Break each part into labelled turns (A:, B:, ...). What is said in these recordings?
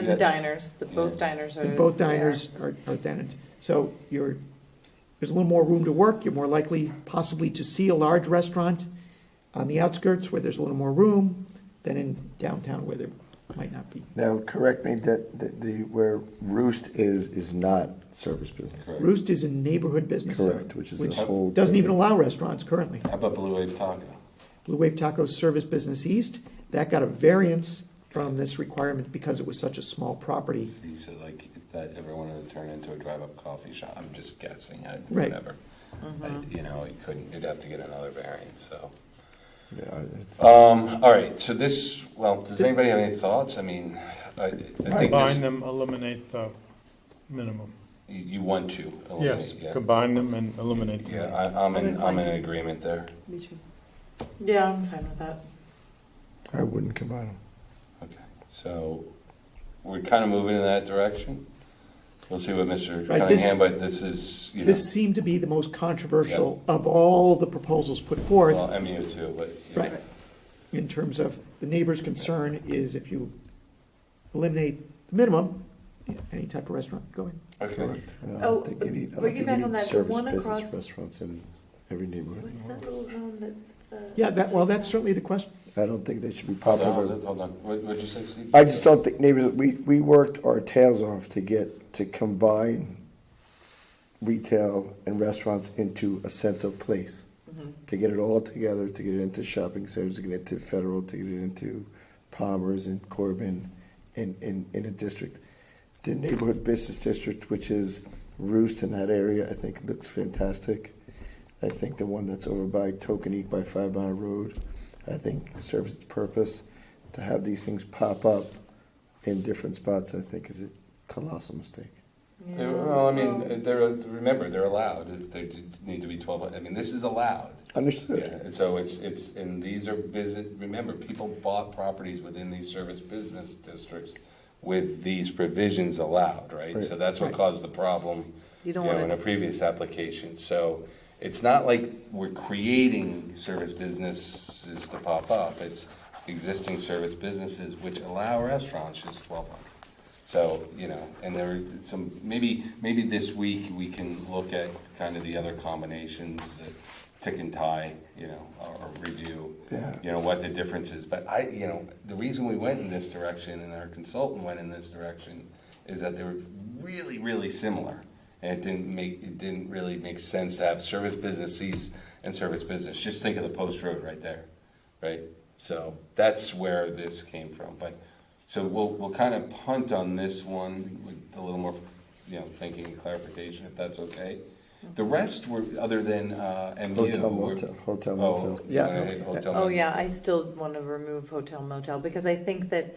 A: And the diners, the, both diners are.
B: And both
A: they are.
B: diners are, are tenant. So you're, there's a little more room to work, you're more likely possibly to see a large restaurant on the outskirts where there's a little more room than in downtown where there might not be.
C: Now, correct me, that, that the, where Roost is, is not service business.
B: Roost is a neighborhood business. zone,
C: Correct, which is a whole.
B: Doesn't even allow restaurants currently.
D: How about Blue Wave Taco?
B: Blue Wave Tacos Service Business East, that got a variance from this requirement because it was such a small property.
D: He said like if that ever wanted to turn into a drive-up coffee shop. I'm just guessing. I,
B: Right.
D: Whatever. I, you know, it couldn't. You'd have to get another variance. So.
C: Yeah, it's-
D: Um, all right. So this. Well, does anybody have any thoughts? I mean, I, I think
E: Combine
D: this,
E: them, eliminate the minimum.
D: you, you want to. eliminate,
E: Yes,
D: Oh, Yeah.
E: combine them and eliminate the
D: Yeah.
E: minimum.
D: I, I'm in. I'm
F: inclined
D: in
F: to.
D: agreement there.
F: Me too.
A: Yeah, I'm fine with that.
C: I wouldn't combine them.
D: Okay. So we're kind of moving in that direction. We'll see what Mr.
B: Right, this-
D: Cunningham. but this is. You know,
B: This seemed to be the most controversial of all the proposals put forth.
D: well, MU too, but yeah.
B: Right. In terms of, the neighbor's concern is if you eliminate the minimum, any type of restaurant, go in.
D: Okay.
A: Oh, piggyback on that, the one across-
C: Restaurants in every neighborhood.
A: What's that little zone that? uh,
B: Yeah, that, well, that's certainly the question.
C: I don't think they should be
D: Hold on.
C: popular.
D: Hold on. What, what'd you say, Steve?
C: I just don't think neighbors, we, we worked our tails off to get, to combine retail and restaurants into a sense of place.
A: Mm-hmm.
C: To get it all together, to get it into shopping centers, to get it into Federal, to get it into Palmer's and Corbin in, in, in a district. The neighborhood business district, which is Roost in that area, I think looks fantastic. I think the one that's over by Tokenique by Five Mile Road, I think serves its purpose. To have these things pop up in different spots, I think is a colossal mistake.
A: yeah.
D: They- Well, I mean, uh, they're, remember, they're allowed, if they d- need to be twelve, I mean, this is allowed. Yeah,
C: Understood.
D: and so it's, it's, and these are business, remember, people bought properties within these service business districts with these provisions allowed, right? So
C: Right.
D: that's what caused the problem,
A: You
D: you
A: don't
D: know, in
A: want
D: a previous application. So it's not like we're creating service businesses to pop up, it's existing service businesses which allow restaurants just twelve hundred. So, you know, and there are some, maybe, maybe this week we can look at kind of the other combinations that tick and tie, you know, or or review,
C: Yeah.
D: you know, what the difference is. But I, you know, the reason we went in this direction and our consultant went in this direction is that they were really, really similar. And it didn't make, it didn't really make sense to have service businesses and service business. Just think of the post road right there, right? So that's where this came from. But so we'll, we'll kind of punt on this one with a little more, you know, thinking and clarification, if that's okay. The rest were, other than uh, MU.
C: Hotel
D: were-
C: motel, hotel
D: Oh,
C: motel.
B: Yeah.
D: uh, hotel.
A: Oh, yeah, I still want to remove hotel motel, because I think that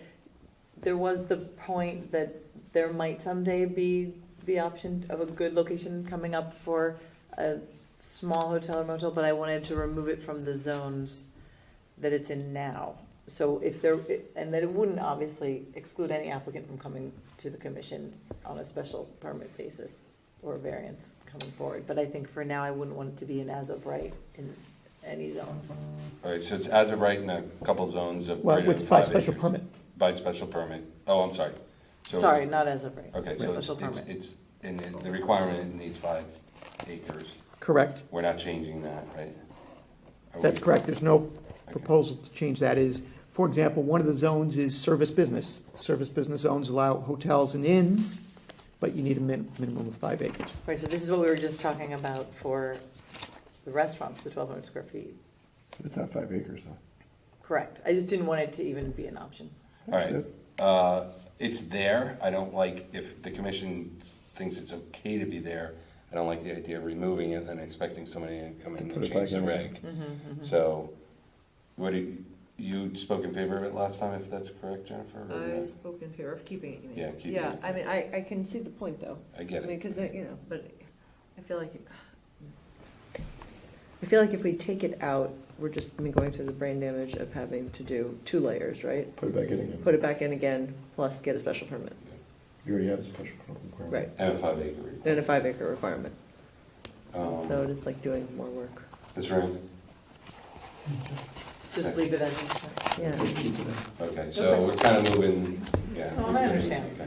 A: there was the point that there might someday be the option of a good location coming up for a small hotel or motel, but I wanted to remove it from the zones that it's in now. So if there, and that it wouldn't obviously exclude any applicant from coming to the commission on a special permit basis or variance coming forward, but I think for now, I wouldn't want it to be an as-of right in any zone.
D: All right, so it's as of right in a couple zones of.
B: Well,
D: greater
B: it's
D: than
B: by
D: five
B: special
D: acres.
B: permit.
D: By special permit. Oh, I'm sorry. So
A: Sorry,
D: it's-
A: not as of right.
D: Okay, so it's,
A: Special
D: it's,
A: permit.
D: it's, and it- the requirement it needs five acres.
B: Correct,
D: We're not changing that, right? Are
B: that's
D: we?
B: correct, there's no proposal to change that is, for example, one of the zones is service business. Service business zones allow hotels and inns, but you need a min- minimum of five acres.
A: Right, so this is what we were just talking about for the restaurants, the twelve hundred square feet.
C: It's not five acres though.
A: Correct. I just didn't want it to even be an option.
D: All right, uh, it's there, I don't like, if the commission thinks it's okay to be there, I don't like the idea of removing it and expecting somebody to come in
C: To
D: and
C: put it
D: change
C: back
D: the
C: in.
D: reg. So, what do, you- you spoke in favor of it last time, if that's correct, Jennifer? or
F: I
D: no?
F: spoke in favor of keeping it, you mean?
D: Yeah, keeping it.
F: I mean, I, I can see the point, though.
D: I get
F: I mean,
D: it,
F: because, you know, but I feel like, I feel like if we take it out, we're just, I mean, going through the brain damage of having to do two layers, right?
C: Put it back in again.
F: Put it back in again, plus get a special permit,
C: You already have a special requirement.
F: right?
D: and a five acre. requirement.
F: And a five acre requirement, so
D: Um,
F: it's like doing more work.
D: That's right.
A: Just leave it at that.
F: yeah.
D: Okay, so we're kind of moving, yeah.
A: No, Oh, I understand.
D: Okay.